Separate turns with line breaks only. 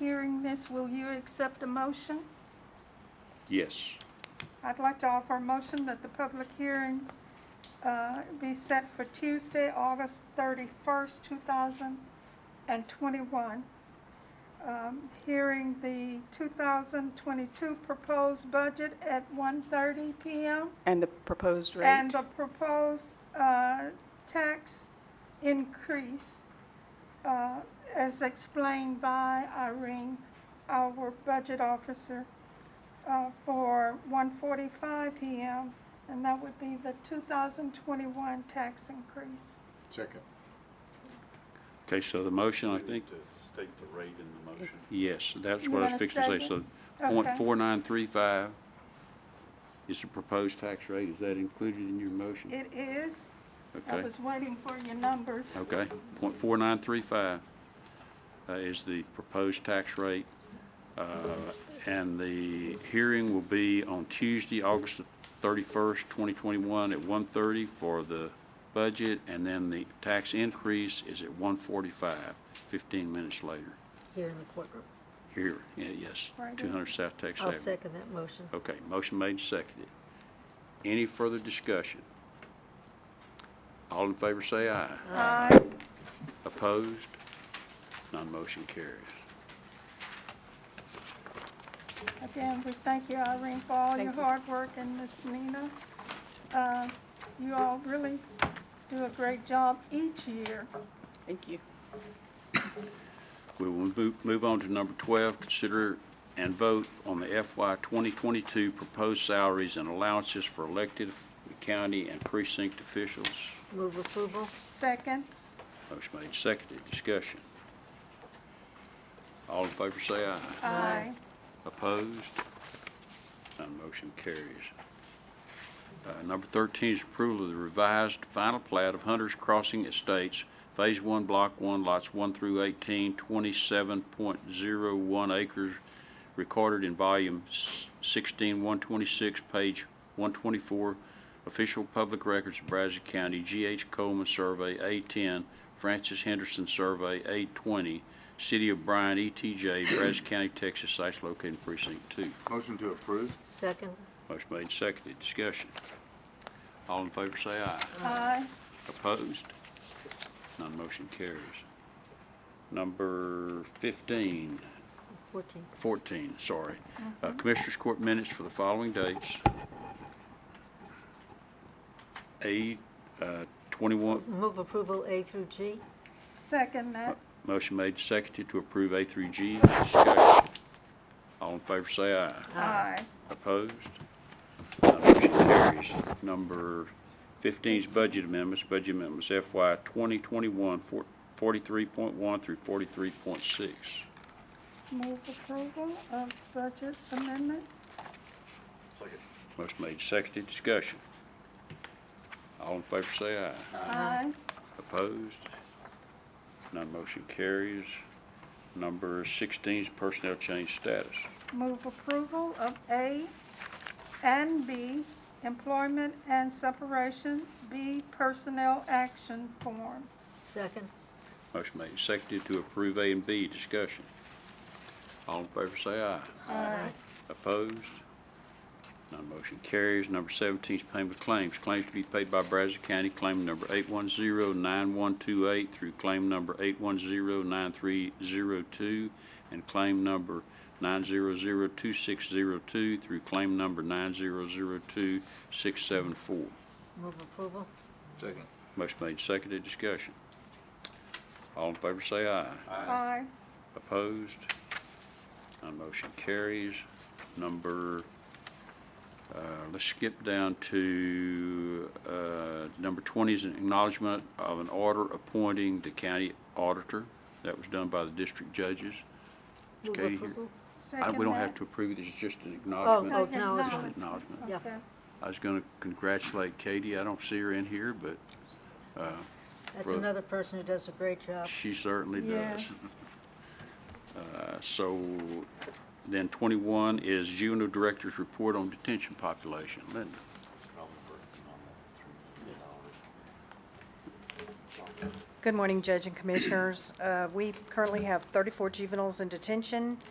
hearing this, will you accept a motion?
Yes.
I'd like to offer a motion that the public hearing uh, be set for Tuesday, August 31st, 2021. Um, Hearing the 2022 proposed budget at 1:30 PM
And the proposed rate?
and the proposed uh, tax increase uh, as explained by Irene, our budget officer, uh, for 1:45 PM, and that would be the 2021 tax increase.
Second.
Okay, so the motion, I think,
To state the rate in the motion.
yes, that's
You
what I
wanna
was fixing to say. So
second?
point
Okay.
four nine three five is the proposed tax rate. Is that included in your motion?
It is, I
Okay,
was waiting for your numbers.
okay. Point four nine three five uh, is the proposed tax rate. Uh, And the hearing will be on Tuesday, August the thirty-first, twenty twenty-one, at one thirty for the budget, and then the tax increase is at one forty-five, fifteen minutes later.
here in the courtroom.
Here, yeah, yes,
Right.
200 South Texas
I'll
Avenue.
second that motion.
Okay, motion made and seconded. Any further discussion? All in favor say aye.
Aye.
Opposed? None motion carries.
Again, we thank you, Irene, for all your hard work, and Miss Nina. Uh, You all really do a great job each year.
Thank you.
We will move- move on to number 12, consider and vote on the FY 2022 proposed salaries and allowances for elected county and precinct officials.
Move approval?
Second,
Motion made and seconded. Discussion. All in favor say aye.
aye.
Opposed? None motion carries. Uh, Number 13 is approval of the revised final plat of Hunter's Crossing Estates, Phase 1, Block 1, Lots 1 through 18, 27.01 acres, recorded in Volume 16126, page 124, Official Public Records of Brazos County, G.H. Coleman Survey, A10, Francis Henderson Survey, A20, City of Bryan, ETJ, Brazos County, Texas, sites located in Precinct 2.
Motion to approve?
Second?
Motion made, and seconded, discussion. All in favor say aye.
Aye.
Opposed? None motion carries. Number 15,
Fourteen.
14, sorry. Uh, Commissioners Court minutes for the following dates. A, uh, 21,
Move approval A through G?
Second that,
motion made, and seconded to approve A through G, discussion. All in favor say aye.
Uh.
aye.
Opposed? None Motion carries. Number 15 is budget amendments. Budget amendments FY 2021, for- 43.1 through 43.6.
Move approval of budget amendments.
Second.
Motion made, seconded, discussion. All in favor say aye.
Aye.
Opposed? None motion carries. Number 16 is personnel change status.
Move approval of A and B, employment and separation, B, personnel action forms.
Second?
Motion made, seconded to approve A and B, discussion. All in favor say aye.
Aye.
Opposed? None motion carries. Number 17 is payment of claims. Claims to be paid by Brazos County, claim number 810-9128 through claim number 810-9302, and claim number 900-2602 through claim number 900-2674.
Move approval?
Second.
Motion made, seconded, discussion. All in favor say aye.
Aye.
Opposed? None motion carries. Number, uh, let's skip down to uh, number 20 is an acknowledgement of an order appointing the county auditor. That was done by the district judges.
Move
Katie here.
approval?
I-
Second
We don't
that.
have to approve it, it's just an acknowledgement.
Oh, no,
Just an
acknowledgement.
acknowledgement.
Yeah.
Okay.
I was going to congratulate Katie. I don't see her in here, but
That's
Right.
another person who does a great job.
She certainly
Yeah.
does. Uh, So then 21 is Juvenile Director's Report on Detention Population. Linda,
I'll be working on that.
Good morning, Judge and Commissioners. Uh, We currently have 34 juveniles in detention.